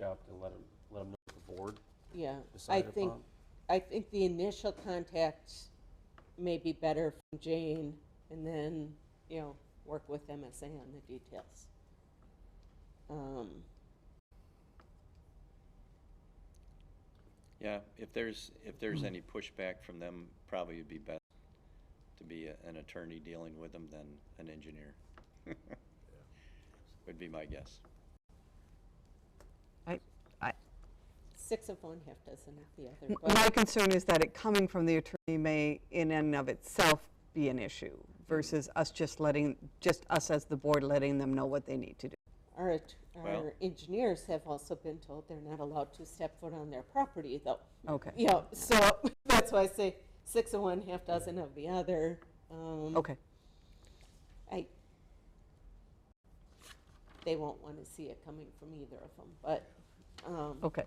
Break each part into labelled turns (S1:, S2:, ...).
S1: out to let them, let them know what the board
S2: Yeah, I
S1: decided
S2: think,
S1: upon?
S2: I think the initial contacts may be better from Jane, and then, you know, work with MSA on the details. Um,
S3: Yeah, if there's, if there's any pushback from them, probably it'd be best to be a- an attorney dealing with them than an engineer. Would be my guess.
S2: Six of one, half dozen of the other,
S4: M-
S2: but
S4: My concern is that it coming from the attorney may in and of itself be an issue versus us just letting, just us as the board letting them know what they need to do.
S2: our, at-
S3: Well-
S2: our engineers have also been told they're not allowed to step foot on their property, though.
S4: Okay,
S2: You know, so that's why I say six of one, half dozen of the other. Um,
S4: okay.
S2: I, they won't want to see it coming from either of them, but, um,
S4: Okay.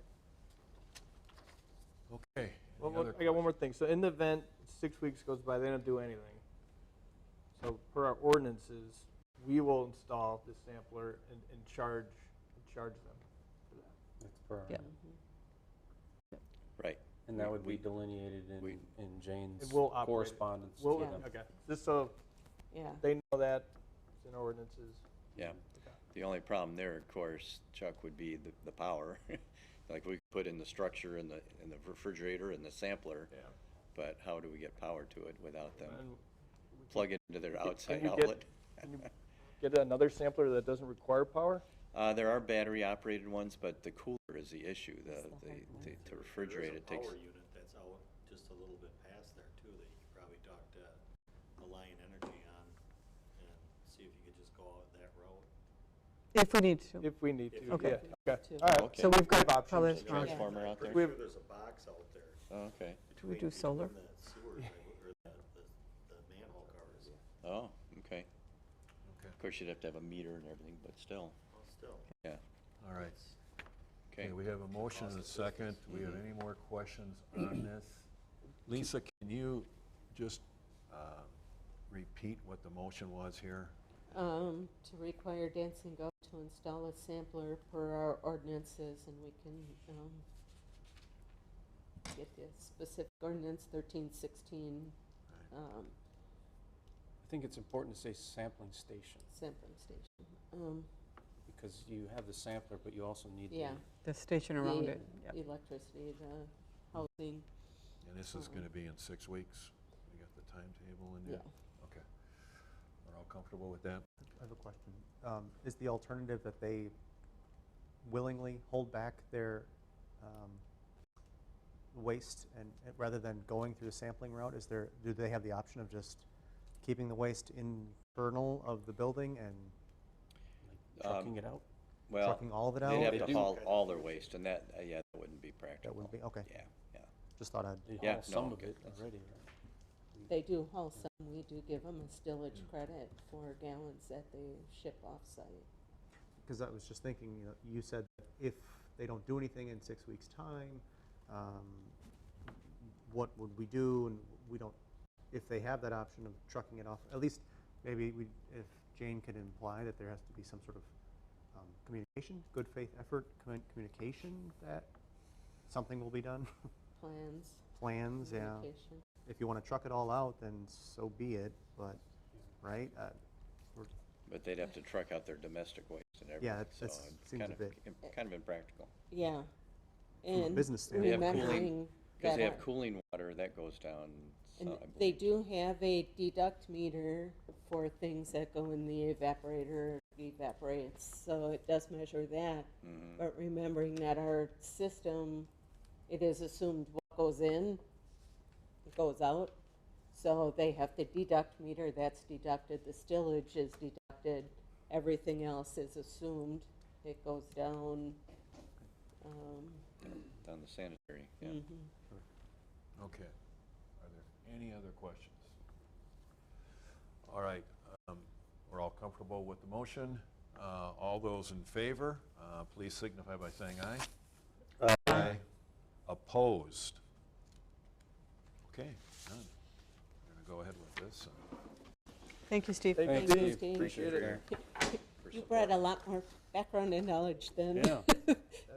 S5: Okay.
S6: Well, look, I got one more thing. So in the event six weeks goes by, they don't do anything. So per our ordinances, we will install the sampler and, and charge, and charge them.
S1: That's per-
S4: Yeah.
S3: Right,
S1: And that would be
S3: We-
S1: delineated in,
S3: we-
S1: in Jane's
S6: It will operate.
S1: correspondence to
S6: Well,
S1: them.
S6: okay, just so
S2: yeah.
S6: they know that it's in our ordinances.
S3: yeah. The only problem there, of course, Chuck, would be the, the power. Like, we could put in the structure and the, and the refrigerator and the sampler,
S6: Yeah.
S3: but how do we get power to it without them
S6: And
S3: plugging into their outside
S6: you get-
S3: outlet?
S6: can you get another sampler that doesn't require power?
S3: Uh, there are battery-operated ones, but the cooler is the issue, the, the, the- to refrigerate it takes.
S7: There is a power unit that's out just a little bit past there too, that you could probably talk to Alliant Energy on and see if you could just go out that road.
S4: If we need to.
S6: If we need to,
S4: Okay.
S6: yeah. Okay,
S2: Two.
S6: all right.
S3: Okay.
S4: So we've
S6: We have
S4: got probably
S6: options.
S4: a strong-
S2: Yeah.
S3: Transformer out there?
S7: Pretty sure there's a box out there.
S3: Oh, Okay,
S4: Do we
S7: between-
S4: do solar?
S7: between the sewer, or the, the- the manhole covers.
S3: oh, okay.
S5: Okay.
S3: Of course, you'd have to have a meter and everything, but still,
S7: Well, still.
S3: yeah,
S5: All right.
S3: okay.
S5: Okay, we have a motion and a second. Do we have any more questions on this? Lisa, can you just uh, repeat what the motion was here?
S2: Um, to require Dancing Goat to install a sampler per our ordinances, and we can, um, get the specific ordinance thirteen sixteen, um,
S1: I think it's important to say sampling station,
S2: sampling station. Um,
S1: because you have the sampler, but you also need
S2: yeah,
S1: the
S4: The station around it.
S2: the
S4: Yep.
S2: electricity, the housing,
S5: And this is going to be in six weeks? We got the timetable in
S2: yeah.
S5: there? Okay. We're all comfortable with that?
S8: I have a question. Um, Is the alternative that they willingly hold back their um, waste and, and rather than going through the sampling route, is there, do they have the option of just keeping the waste internal of the building and
S3: Um,
S1: trucking it out.
S3: Well,
S8: trucking all of it out?
S3: they'd
S1: They
S3: have to
S1: do.
S3: haul all their waste, and that, uh, yeah, that wouldn't be practical.
S8: That wouldn't be, okay,
S3: Yeah, yeah.
S8: just thought I'd,
S1: They
S3: Yeah,
S1: haul some of
S3: no, okay,
S1: it
S3: that's-
S1: already, right?
S2: They do haul some, we do give them a stillage credit for gallons that they ship off-site.
S8: because I was just thinking, you know, you said that if they don't do anything in six weeks' time, um, what would we do? And we don't, if they have that option of trucking it off, at least maybe we, if Jane could imply that there has to be some sort of um, communication, good faith effort, commun- communication that something will be done,
S2: Plans,
S8: plans, yeah.
S2: communication.
S8: If you want to truck it all out, then so be it, but, right? Uh,
S3: But they'd have to truck out their domestic waste and everything.
S8: that-
S3: so
S8: that's-
S3: it's
S8: seems a
S3: kind of-
S8: bit-
S3: im- Kind of impractical.
S2: Yeah.
S8: From a
S2: And
S8: business standpoint.
S3: They have cooling-
S2: remembering
S3: Because
S2: that
S3: they have
S2: our-
S3: cooling water, that goes down.
S2: and
S3: some-
S2: they do have a deduct meter for things that go in the evaporator, evaporates, so it does measure that.
S3: Mhm.
S2: But remembering that our system, it is assumed what goes in goes out. So they have the deduct meter, that's deducted, the stillage is deducted, everything else is assumed, it goes down. Um,
S3: Down the sanitary, yeah.
S2: mhm.
S5: Okay. Are there any other questions? All right, um, we're all comfortable with the motion. Uh, All those in favor, uh, please signify by saying aye. Aye. Opposed? Okay, none. We're going to go ahead with this.
S4: Thank you, Steve.
S2: Thank
S6: you.
S2: you, Steve.
S6: Appreciate it.
S2: You brought a lot more background and knowledge than
S1: Yeah.